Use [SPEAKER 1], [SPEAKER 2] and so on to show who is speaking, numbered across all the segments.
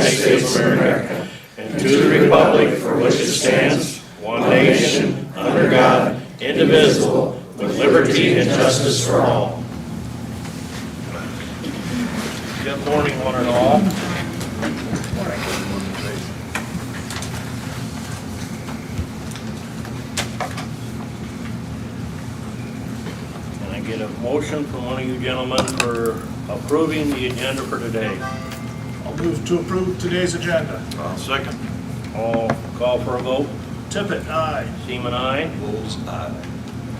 [SPEAKER 1] States of America and to the republic for which it stands, one nation, under God, indivisible, with liberty and justice for all. Good morning, one and all. Can I get a motion from one of you gentlemen for approving the agenda for today?
[SPEAKER 2] I'll move to approve today's agenda.
[SPEAKER 1] I'll second. All, call for a vote.
[SPEAKER 2] Tippit, aye.
[SPEAKER 1] Seaman, aye?
[SPEAKER 3] Bulls eye.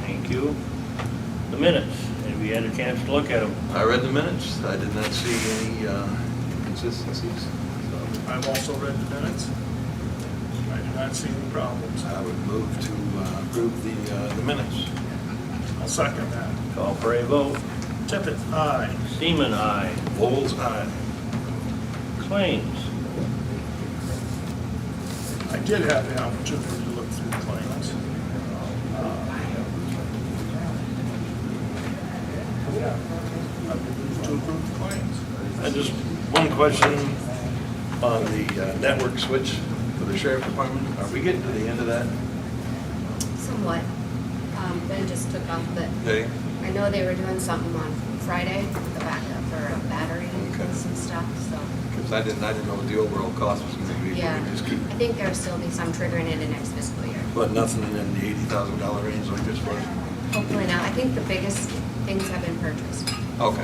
[SPEAKER 1] Thank you. The minutes, have you had a chance to look at them?
[SPEAKER 3] I read the minutes, I did not see any uh, inconsistencies. so
[SPEAKER 2] I've also read the minutes. I do not see any problems.
[SPEAKER 3] I would move to uh, approve the, uh, the minutes.
[SPEAKER 2] I'll second that.
[SPEAKER 1] Call for a vote.
[SPEAKER 2] Tippit, aye.
[SPEAKER 1] Seaman, aye?
[SPEAKER 3] Bulls eye.
[SPEAKER 1] Claims,
[SPEAKER 2] I did have the opportunity to look through the claims. Uh, Yeah, I would move to approve the claims.
[SPEAKER 3] And just one question on the uh, network switch for the sheriff department. Are we getting to the end of that?
[SPEAKER 4] Somewhat. Um, Ben just took off, but
[SPEAKER 3] Okay.
[SPEAKER 4] I know they were doing something on Friday, the backup for a battery
[SPEAKER 3] Okay.
[SPEAKER 4] and some stuff, so,
[SPEAKER 3] Because I didn't, I didn't know what the overall cost was going to be.
[SPEAKER 4] yeah.
[SPEAKER 3] We just keep,
[SPEAKER 4] I think there'll still be some triggering into next fiscal year.
[SPEAKER 3] but nothing in the eighty thousand dollar range like this was.
[SPEAKER 4] Hopefully not. I think the biggest things have been purchased.
[SPEAKER 3] Okay, all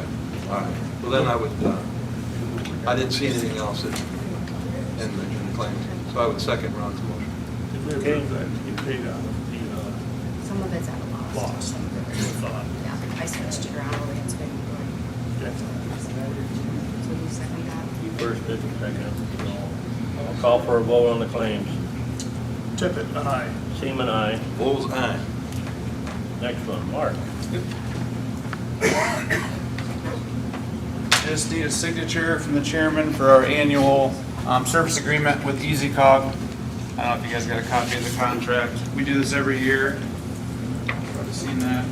[SPEAKER 3] right. Well, then I would, uh, I didn't see anything else in, in the in the claims, so I would second Ron's motion.
[SPEAKER 2] Did we approve that? You paid out the
[SPEAKER 4] Some of it's at a
[SPEAKER 2] uh,
[SPEAKER 4] loss.
[SPEAKER 2] loss. Uh,
[SPEAKER 4] Yeah, I switched it around, only it's been going.
[SPEAKER 2] yeah.
[SPEAKER 4] So you second that?
[SPEAKER 1] you first, did and second. I'll Call for a vote on the claims.
[SPEAKER 2] Tippit, aye.
[SPEAKER 1] Seaman, aye?
[SPEAKER 3] Bull's eye.
[SPEAKER 1] Next one, Mark.
[SPEAKER 5] Just need a signature from the chairman for our annual um, service agreement with E EasyCog. I don't know if you guys got a copy of the contract. We do this every year. Probably seen that.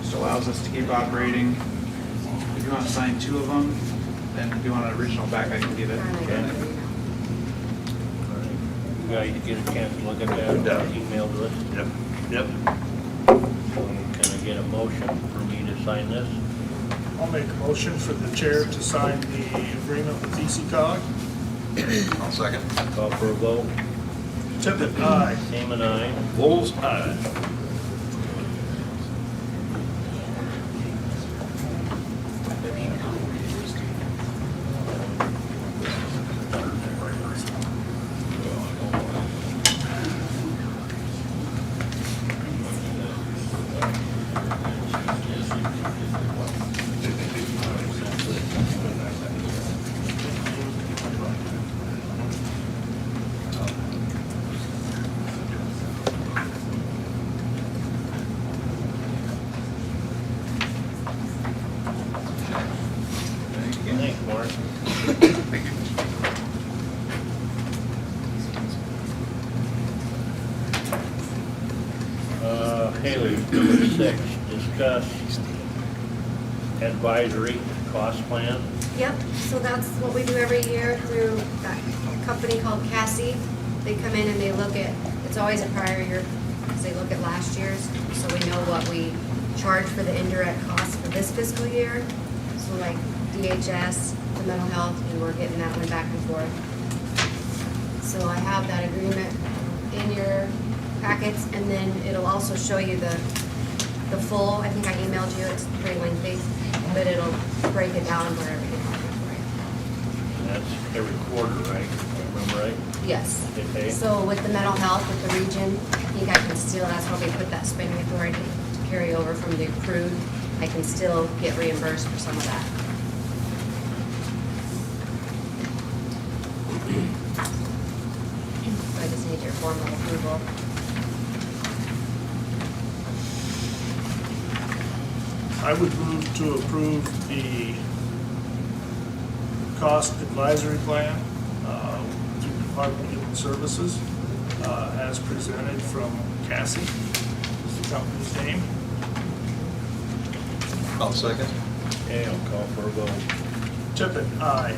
[SPEAKER 5] Just allows us to keep operating. If you want to sign two of them, then if you want an original back, I can get it.
[SPEAKER 4] Finally got it, you know.
[SPEAKER 1] You guys get a chance to look at
[SPEAKER 3] Yeah.
[SPEAKER 1] that, email to us.
[SPEAKER 3] Yep, yep.
[SPEAKER 1] Can I get a motion for me to sign this?
[SPEAKER 2] I'll make a motion for the chair to sign the agreement with E ECOG.
[SPEAKER 3] I'll second.
[SPEAKER 1] Call for a vote.
[SPEAKER 2] Tippit, aye.
[SPEAKER 1] Seaman, aye?
[SPEAKER 3] Bull's eye.
[SPEAKER 1] Thanks, Mark. Uh, Haley, number six, discuss advisory cost plan.
[SPEAKER 4] Yep, so that's what we do every year through that company called Cassie. They come in and they look at, it's always a prior year, because they look at last year's, so we know what we charge for the indirect costs for this fiscal year. So like DHS, the mental health, and we're getting that one back and forth. So I have that agreement in your packets, and then it'll also show you the, the full, I think I emailed you, it's pretty lengthy, but it'll break it down where everything happened
[SPEAKER 1] That's every quarter, right? If I Remember right?
[SPEAKER 4] for you. Yes.
[SPEAKER 1] Okay.
[SPEAKER 4] So with the mental health, with the region, I think I can still, that's why we put that spending authority to carry over from the accrued. I can still get reimbursed for some of that. So I just need your formal approval.
[SPEAKER 2] I would move to approve the cost advisory plan uh, through Department of Human Services uh, as presented from Cassie, is the company's name.
[SPEAKER 3] I'll second.
[SPEAKER 1] Okay, I'll call for a vote.
[SPEAKER 2] Tippit, aye.